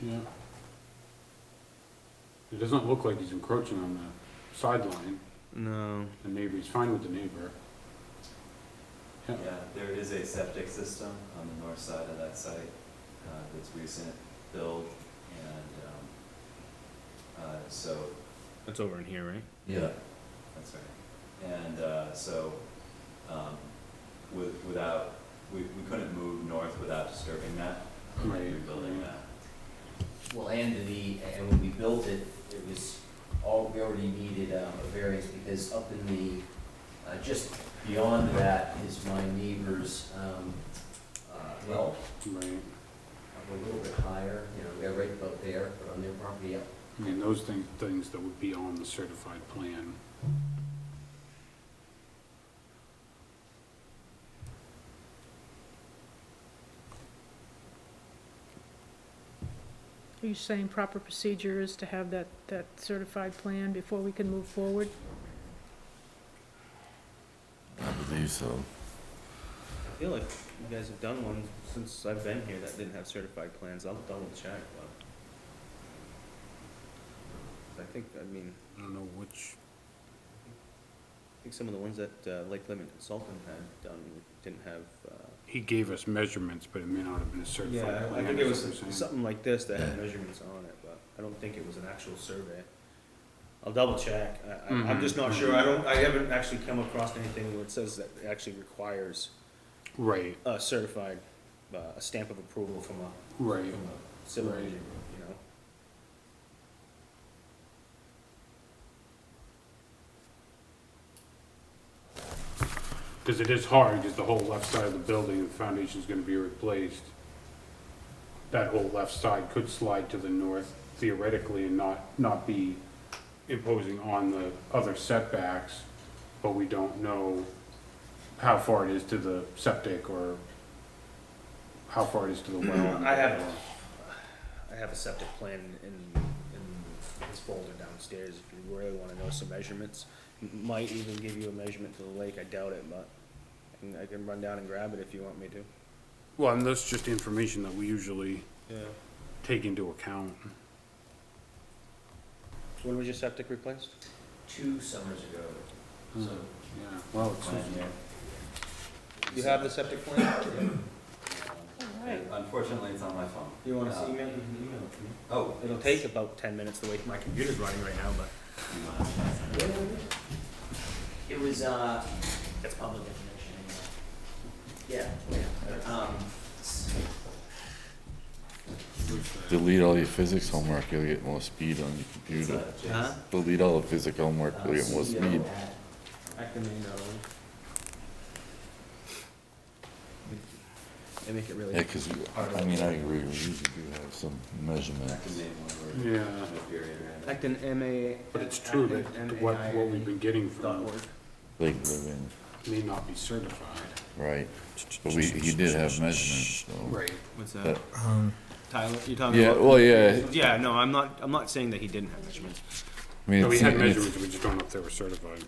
Yeah. It doesn't look like he's encroaching on the sideline, No. the neighbor, he's fine with the neighbor. Yeah. Yeah, there is a septic system on the north side of that site, uh, that's recent build, and, um, uh, so, That's over in here, right? yeah, that's right. And, uh, so, um, with, without, we, we couldn't move north without disturbing that, Right. rebuilding that. Well, and the, and when we built it, it was all, we already needed um, a variance because up in the, uh, just beyond that is my neighbor's, um, uh, well, Right, up a little bit higher, you know, they're right about there, but on their property up. I mean, those things, things that would be on the certified plan. Are you saying proper procedure is to have that, that certified plan before we can move forward? I believe so. I feel like you guys have done one since I've been here that didn't have certified plans. I'll double check, but. I think, I mean, I don't know which, I think some of the ones that uh, Lake Lemon Consultant had done didn't have, uh, he gave us measurements, but it may not have been a certified Yeah, plan. I think it is was what you're saying. something like this that had measurements on it, but I don't think it was an actual survey. I'll double check. I, I- I'm just not sure. I don't, I haven't actually come across anything where it says that it actually requires Right, a certified, uh, a stamp of approval from a, right, from a civil Right. engineer, you know? because it is hard, because the whole left side of the building, the foundation's gonna be replaced. That whole left side could slide to the north theoretically and not, not be imposing on the other setbacks, but we don't know how far it is to the septic or how far it is to the well. I have, I have a septic plan in, in this folder downstairs, if you really wanna know some measurements. M- Might even give you a measurement to the lake, I doubt it, but I can- I can run down and grab it if you want me to. Well, and that's just information that we usually Yeah. take into account. When was your septic replaced? Two summers ago, so, Hmm. Yeah, well, it's. one year. You have the septic plan? All right. Um, Unfortunately, it's on my phone. You wanna Uh, see email, you can email it to me. Oh. It'll take about ten minutes the way my computer's running right now, but. It was, uh, that's public information anyway. Yeah, yeah, um, s- Delete all your physics homework, you'll get more speed on your It's, computer. uh, Jason. Huh? Delete all the physics homework, uh, you'll get more CEO speed. at- I can email them. They make it really. Yeah, 'cause you I mean, I agree, we usually do have some measurement. That could name one word. Yeah, Infuriating. Acton M A. but it's true that what, what we've been getting from them Lake Living, may not be certified. right, but we, he did have measurements, so. Right. What's That- that? Tyler, you're talking um, Yeah, about? well, yeah, Yeah, no, I'm not, I'm not saying that he didn't have measurements. I mean, No, we it's, had it's, measurements, we just don't know if they were certified.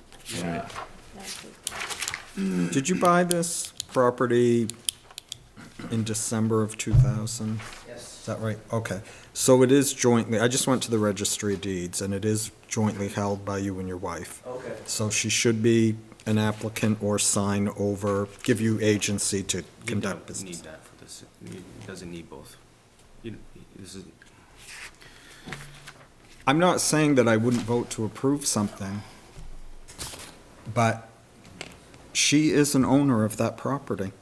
right. Did you buy this property in December of 2000? Is Yes, that right? Okay. So it is jointly, I just went to the registry of deeds, and it is jointly held by you and your wife. okay. So she should be an applicant or sign over, give you agency to conduct You don't Need business. that for this, it doesn't need both. You, this is, I'm not saying that I wouldn't vote to approve something, but she is an owner of that property,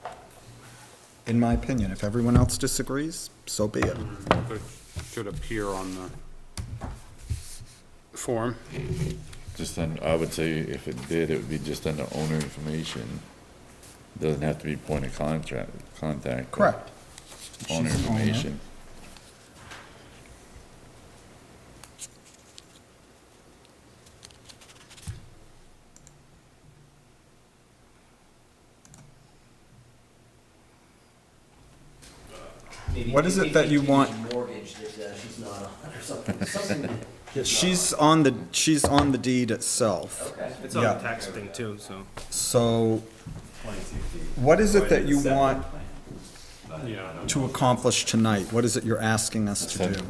in my opinion. If everyone else disagrees, so be it. But it Should appear on the form. Just then, I would say if it did, it would be just under owner information. Doesn't have to be point of contract, contact. but Correct. Owner She's an owner. information. Maybe- What is it maybe that you it's want- Mortgage that uh, she's not on or something, something. that- She's on the, she's on the deed itself. Okay. it's on the Yeah. tax thing too, so. So Twenty-two feet. what is it Right, that you septic want plan. But I Yeah. don't know. to accomplish tonight? What is it you're asking us to do?